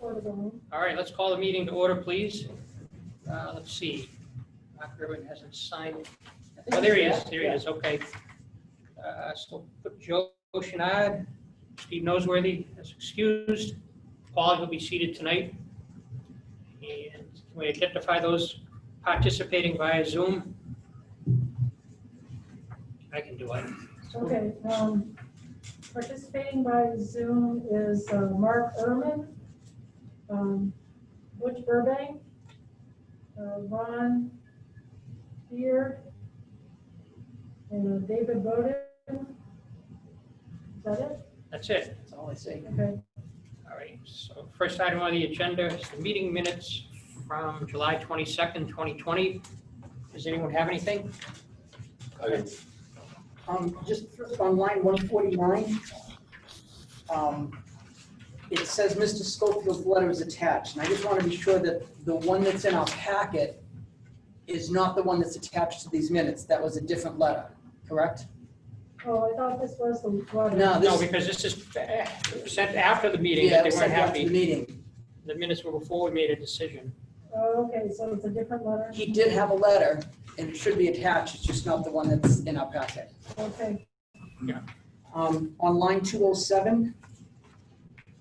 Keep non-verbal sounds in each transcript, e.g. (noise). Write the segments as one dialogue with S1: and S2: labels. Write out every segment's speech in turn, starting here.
S1: All right, let's call the meeting to order, please. Uh, Let's see. Mark Urban hasn't signed. Oh, there he is. There he is. Okay. Uh, So put Joe Shinad, Steve Noseworthy is excused. Paul will be seated tonight. And can we identify those participating via Zoom? I can do it.
S2: Okay, um, participating by Zoom is uh, Mark Ehrman, um, Butch Burbank, uh, Ron Beard, and uh, David Bowden. Is that it?
S1: That's it.
S3: That's all I see.
S2: Okay,
S1: All right, so first item on the agenda is the meeting minutes from July 22nd, 2020. Does anyone have anything?
S3: Um, just on line one forty-nine, um, it says Mr. Schofield's letter is attached, and I just want to be sure that the one that's in our packet is not the one that's attached to these minutes. That was a different letter, correct?
S2: oh, I thought this was the one.
S3: No,
S1: No,
S3: Uh, this.
S1: because this is eh, sent after the meeting, that
S3: Yeah, it
S1: they
S3: was
S1: weren't
S3: sent after the
S1: happy.
S3: Meeting.
S1: The minutes were before we made a decision.
S2: Oh, okay, so it's a different letter,
S3: He did have a letter, and it should be attached, it's just not the one that's in our packet.
S2: okay,
S3: Um, on line two oh seven,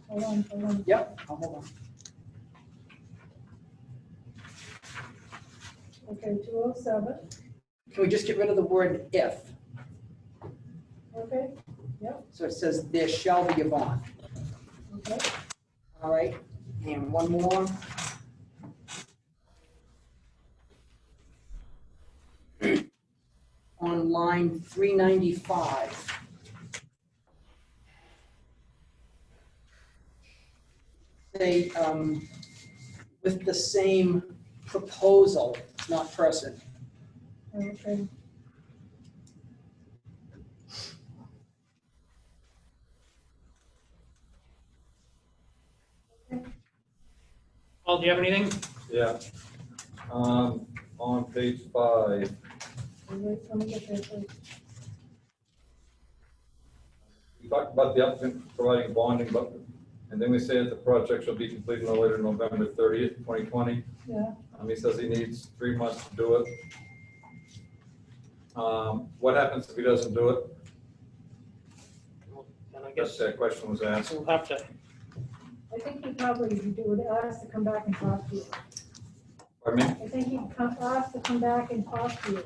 S2: hold on, hold on.
S3: yep, I'll hold on.
S2: Okay, two oh seven,
S3: Can we just get rid of the word if?
S2: okay,
S3: So it says there shall be a bond,
S2: okay.
S3: all right? And one more. (clears throat) On line three ninety-five. They, um, with the same proposal, not person.
S2: Okay.
S1: Paul, do you have anything?
S4: Yeah. Um, on page five,
S2: Wait, let me get there first.
S4: we talked about the applicant providing bonding, but, and then we say that the project shall be completed no later than November thirtieth, twenty twenty.
S2: Yeah,
S4: Um, he says he needs three months to do it. Um, what happens if he doesn't do it?
S1: Then I
S4: Yes,
S1: guess
S4: that question was asked.
S1: we'll have to,
S2: I think he probably, if you do it, ask to come back and talk to you.
S4: Pardon me,
S2: I think he come, asked to come back and talk to you.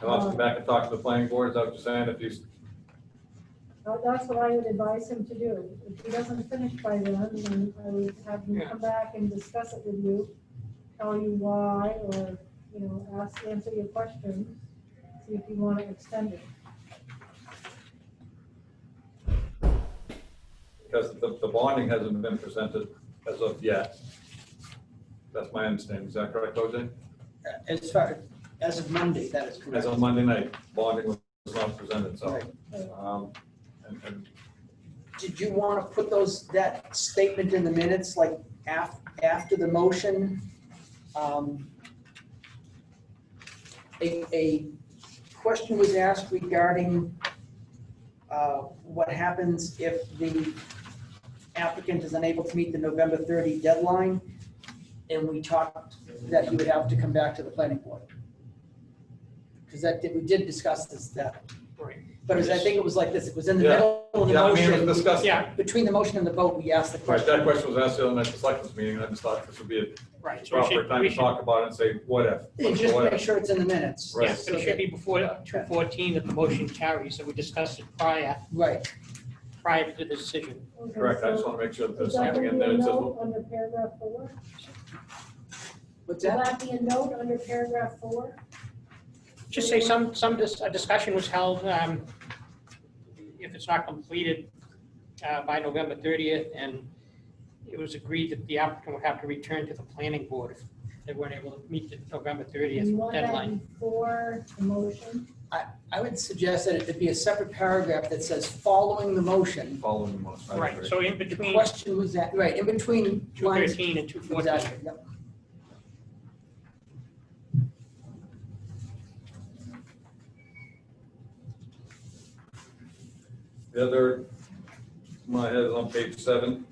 S4: I'll have to come back and talk to the planning board, as I was saying, if he's,
S2: Uh, That's what I would advise him to do. If he doesn't finish by then, then I would have him
S1: Yeah.
S2: come back and discuss it with you, tell you why, or, you know, ask, answer your questions, see if you want to extend it.
S4: because the, the bonding hasn't been presented as of yet. That's my understanding, is that correct, OJ?
S3: As far, as of Monday, that is
S4: As
S3: correct.
S4: of Monday night, bonding was not presented, so.
S3: Right.
S4: Um, and- and
S3: Did you want to put those, that statement in the minutes, like af, after the motion? um, A, a question was asked regarding uh, what happens if the applicant is unable to meet the November 30 deadline? And we talked that you would have to come back to the planning board. Because that, did- we did discuss this, that,
S1: right.
S3: but it was- I think it was like this, it was in the
S4: Yeah.
S3: middle of the
S4: Yeah, I mean,
S3: motion.
S4: it was discussed.
S1: Yeah,
S3: Between the motion and the vote, we asked the
S4: Right,
S3: question.
S4: that question was asked the other night at the selectmen's meeting, and I just thought this would be a
S3: Right.
S1: so we
S4: proper
S1: should,
S4: time
S1: we
S4: to
S1: should,
S4: talk about it and say, what if?
S3: And
S4: What's
S3: just
S4: the what
S3: make
S4: if?
S3: sure it's in the minutes.
S4: Right.
S1: yeah, but it should be before 2:14 that the motion carries, so we discussed it prior,
S3: Right,
S1: prior to the decision.
S2: Okay,
S4: Correct, I just
S2: so
S4: want to make sure that
S2: Is
S4: there's
S2: that
S4: something
S2: going to
S4: in
S2: be
S4: there
S2: a
S4: that says,
S2: note under paragraph four?
S3: what's
S2: Will
S3: that?
S2: that be a note under paragraph four?
S1: Just say some, some dis- a discussion was held, um, if it's not completed uh, by November 30th, and it was agreed that the applicant would have to return to the planning board if they weren't able to meet the November
S2: You want
S1: 30th deadline.
S2: that before the motion?
S3: I would suggest that it be a separate paragraph that says, following the motion.
S4: following the motion. I
S1: Right,
S4: agree.
S1: so in
S3: The
S1: between
S3: question was that, right, in between lines.
S1: 213 and 214.
S3: Exactly, yep.
S4: The other, my head is on page seven.